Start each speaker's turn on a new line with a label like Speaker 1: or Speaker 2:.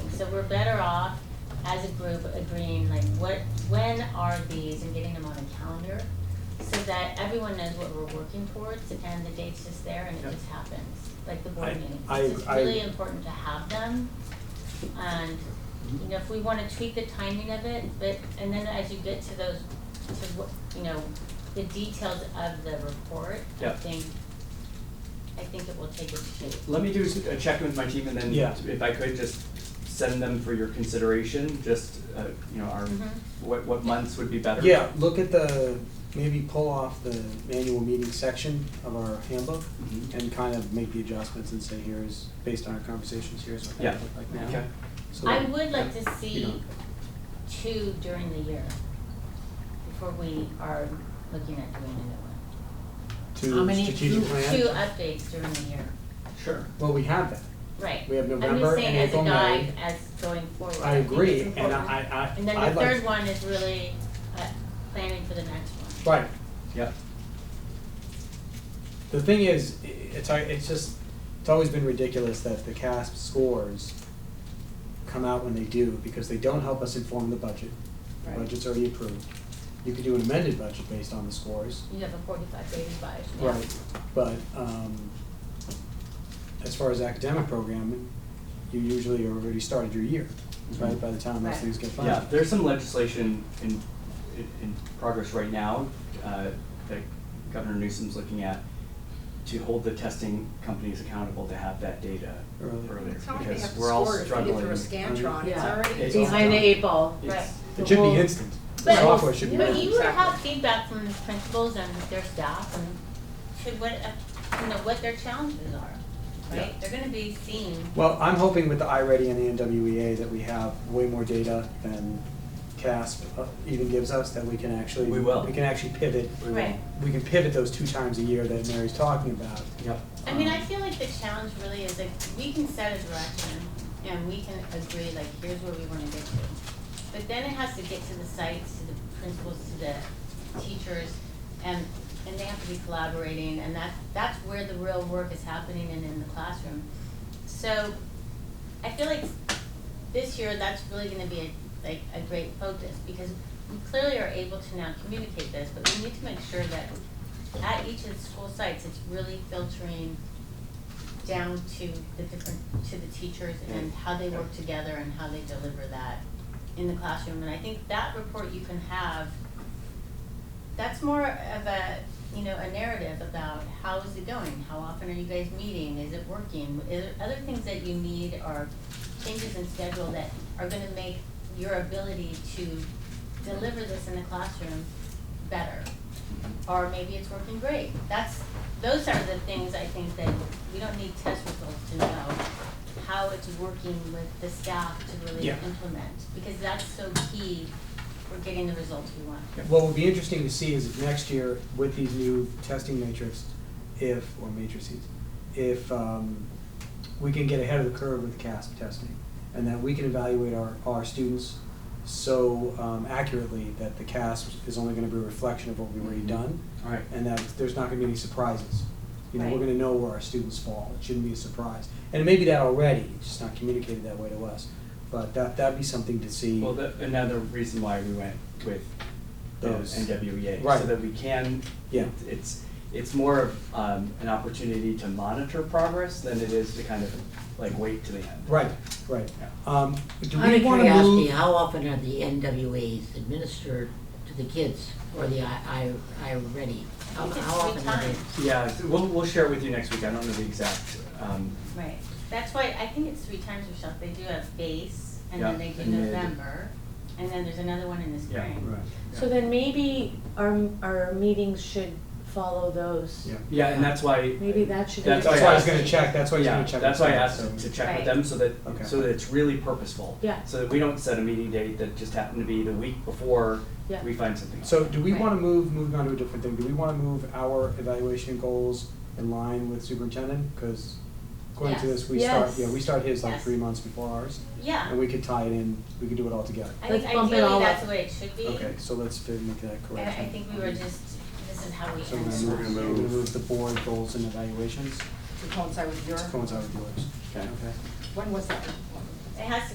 Speaker 1: so we're better off as a group agreeing like what, when are these and getting them on a calendar so that everyone knows what we're working towards and the date's just there and
Speaker 2: Yeah.
Speaker 1: it just happens, like the board
Speaker 2: I-
Speaker 1: meetings.
Speaker 2: I-
Speaker 1: It's just
Speaker 2: I-
Speaker 1: really important to have them. And, you know, if we wanna tweak the timing of it, but, and then as you get to those, to what, you know, the details of the report, I
Speaker 2: Yeah.
Speaker 1: think, I think it will take its shape.
Speaker 3: Let me do s- a check with my team and then
Speaker 2: Yeah.
Speaker 3: if I could just send them for your consideration, just, uh, you know, our,
Speaker 1: Mhm.
Speaker 3: what, what months would be better?
Speaker 4: Yeah, look at the, maybe pull off the annual meeting section of our handbook
Speaker 3: Mhm.
Speaker 4: and kind of make the adjustments and say, here's, based on our conversations, here's what
Speaker 3: Yeah.
Speaker 4: that looked like now.
Speaker 3: Okay.
Speaker 4: So
Speaker 1: I
Speaker 4: that-
Speaker 1: would like to
Speaker 4: you
Speaker 1: see
Speaker 4: know.
Speaker 1: two during the year before we are looking at doing another
Speaker 5: How
Speaker 4: To
Speaker 5: many-
Speaker 4: strategic
Speaker 5: two-
Speaker 1: one.
Speaker 4: plan.
Speaker 1: Two updates during the year,
Speaker 3: Sure.
Speaker 4: Well, we have that.
Speaker 1: right.
Speaker 4: We have November and April, May.
Speaker 1: I'm just saying as a guide, as going forward.
Speaker 4: I
Speaker 1: think it's
Speaker 4: agree, and
Speaker 1: important.
Speaker 4: I,
Speaker 1: And
Speaker 4: I,
Speaker 1: then
Speaker 4: I'd
Speaker 1: the third
Speaker 4: like,
Speaker 1: one is really uh, planning for the next one.
Speaker 4: right,
Speaker 3: Yeah.
Speaker 4: the thing is, i- it's, al- it's just, it's always been ridiculous that the CASP scores come out when they do, because they don't help us inform the budget. The
Speaker 1: Right.
Speaker 4: budget's already approved. You could do an amended budget based on the scores,
Speaker 1: You have a forty-five day revised, yeah.
Speaker 4: Right, but, um, as far as academic programming, you usually are already started your year, right, by the time those
Speaker 1: Right.
Speaker 4: things get
Speaker 3: Yeah,
Speaker 4: funded.
Speaker 3: there's some legislation in, in, in progress right now, uh, that Governor Newsom's looking at to hold the testing companies accountable to have that data
Speaker 4: Early.
Speaker 3: earlier,
Speaker 5: It's already
Speaker 3: because
Speaker 5: have to
Speaker 3: we're all
Speaker 5: score it,
Speaker 3: struggling.
Speaker 5: you through a Scantron, it's
Speaker 6: Yeah.
Speaker 5: already.
Speaker 3: It's
Speaker 6: Behind the
Speaker 3: all-
Speaker 6: eight ball.
Speaker 1: Right.
Speaker 3: It's-
Speaker 4: It should
Speaker 6: Well,
Speaker 4: be instant, the
Speaker 1: But-
Speaker 4: software should be
Speaker 1: But you
Speaker 4: instant.
Speaker 1: would have
Speaker 5: Exactly.
Speaker 1: feedback from the principals and their staff and to what, uh, you know, what their challenges are, right? They're gonna be seeing
Speaker 4: Well, I'm hoping with the iReady and the NWEA that we have way more data than CASP uh, even gives us, that we can actually.
Speaker 3: We will.
Speaker 4: We can actually pivot,
Speaker 3: We will-
Speaker 1: Right.
Speaker 4: we can pivot those two times a year that Mary's talking about.
Speaker 3: Yep.
Speaker 1: I mean, I feel like the challenge really is like, we can set a direction and we can agree, like, here's where we wanna get to. But then it has to get to the sites, to the principals, to the teachers, and, and they have to be collaborating, and that, that's where the real work is happening and in the classroom. So, I feel like this year, that's really gonna be a, like, a great focus, because we clearly are able to now communicate this, but we need to make sure that at each of the school sites, it's really filtering down to the different, to the teachers and how they work together and how they deliver that in the classroom. And I think that report you can have, that's more of a, you know, a narrative about how is it going? How often are you guys meeting? Is it working? Is there other things that you need or changes in schedule that are gonna make your ability to deliver this in the classroom better? or maybe it's working great. That's, those are the things I think that we don't need test results to know how it's working with the staff to really
Speaker 4: Yeah.
Speaker 1: implement, because that's so key for getting the results we want.
Speaker 4: What would be interesting to see is if next year with these new testing matrix, if, or matrices, if um, we can get ahead of the curve with CASP testing and that we can evaluate our, our students so um, accurately that the CASP is only going to be a reflection of what we've already done
Speaker 3: All right.
Speaker 4: and that there's not going to be any surprises. You know, we're
Speaker 1: Right.
Speaker 4: going to know where our students fall. It shouldn't be a surprise. And it may be that already, it's just not communicated that way to us. But that, that'd be something to see.
Speaker 3: Well, that, another reason why we went with the
Speaker 4: Those.
Speaker 3: NWEA,
Speaker 4: Right.
Speaker 3: so that we can,
Speaker 4: Yeah.
Speaker 3: it's, it's more of, um, an opportunity to monitor progress than it is to kind of like wait to the end.
Speaker 4: Right, right.
Speaker 3: Yeah.
Speaker 4: Um, do
Speaker 5: Out
Speaker 4: we
Speaker 5: of
Speaker 4: wanna
Speaker 5: curiosity,
Speaker 4: move?
Speaker 5: how often are the NWAs administered to the kids or the I, I, I ready? How,
Speaker 1: It's
Speaker 5: how
Speaker 1: three
Speaker 5: often are they?
Speaker 1: times.
Speaker 3: Yeah, so we'll, we'll share with you next week, I don't know the exact, um,
Speaker 1: Right, that's why, I think it's three times, Michelle, they do a base, and
Speaker 3: Yeah,
Speaker 1: then they do
Speaker 3: and mid.
Speaker 1: November, and then there's another one in the
Speaker 3: Yeah.
Speaker 1: spring.
Speaker 4: Right,
Speaker 6: So then maybe our, our meetings should follow those.
Speaker 4: yeah.
Speaker 3: yeah, and that's why.
Speaker 6: Maybe that should be.
Speaker 3: That's
Speaker 6: the
Speaker 3: why
Speaker 4: That's
Speaker 3: I
Speaker 4: why I was
Speaker 3: asked-
Speaker 4: gonna check, that's why I was
Speaker 3: Yeah,
Speaker 4: gonna check.
Speaker 3: that's
Speaker 4: with
Speaker 3: why I
Speaker 4: them,
Speaker 3: asked
Speaker 4: so-
Speaker 3: to check
Speaker 1: Right.
Speaker 3: with them so that,
Speaker 4: Okay.
Speaker 3: so that it's really purposeful.
Speaker 6: Yeah.
Speaker 3: So that we don't set a meeting date that just happened to be the week before
Speaker 6: Yeah.
Speaker 3: we find something.
Speaker 4: So do we wanna move, moving on to a different thing, do we wanna move our evaluation goals in line with superintendent? Cause according to
Speaker 1: Yes.
Speaker 4: this, we start,
Speaker 6: Yes.
Speaker 4: yeah, we start his like
Speaker 1: Yes.
Speaker 4: three months before ours,
Speaker 1: Yeah,
Speaker 4: and we could tie it in, we could do it all together.
Speaker 1: I think
Speaker 6: Let's bump it
Speaker 1: ideally
Speaker 6: all up.
Speaker 1: that's the way it should be,
Speaker 4: Okay, so let's fi- make that
Speaker 1: and I
Speaker 4: correction.
Speaker 1: think we were just, this is how we
Speaker 4: So
Speaker 1: end.
Speaker 4: we're gonna
Speaker 1: it.
Speaker 4: move, we're gonna move the board goals and evaluations
Speaker 5: To coincide with your.
Speaker 4: to coincide with yours.
Speaker 3: Okay.
Speaker 4: Okay.
Speaker 5: When was that?
Speaker 1: It has to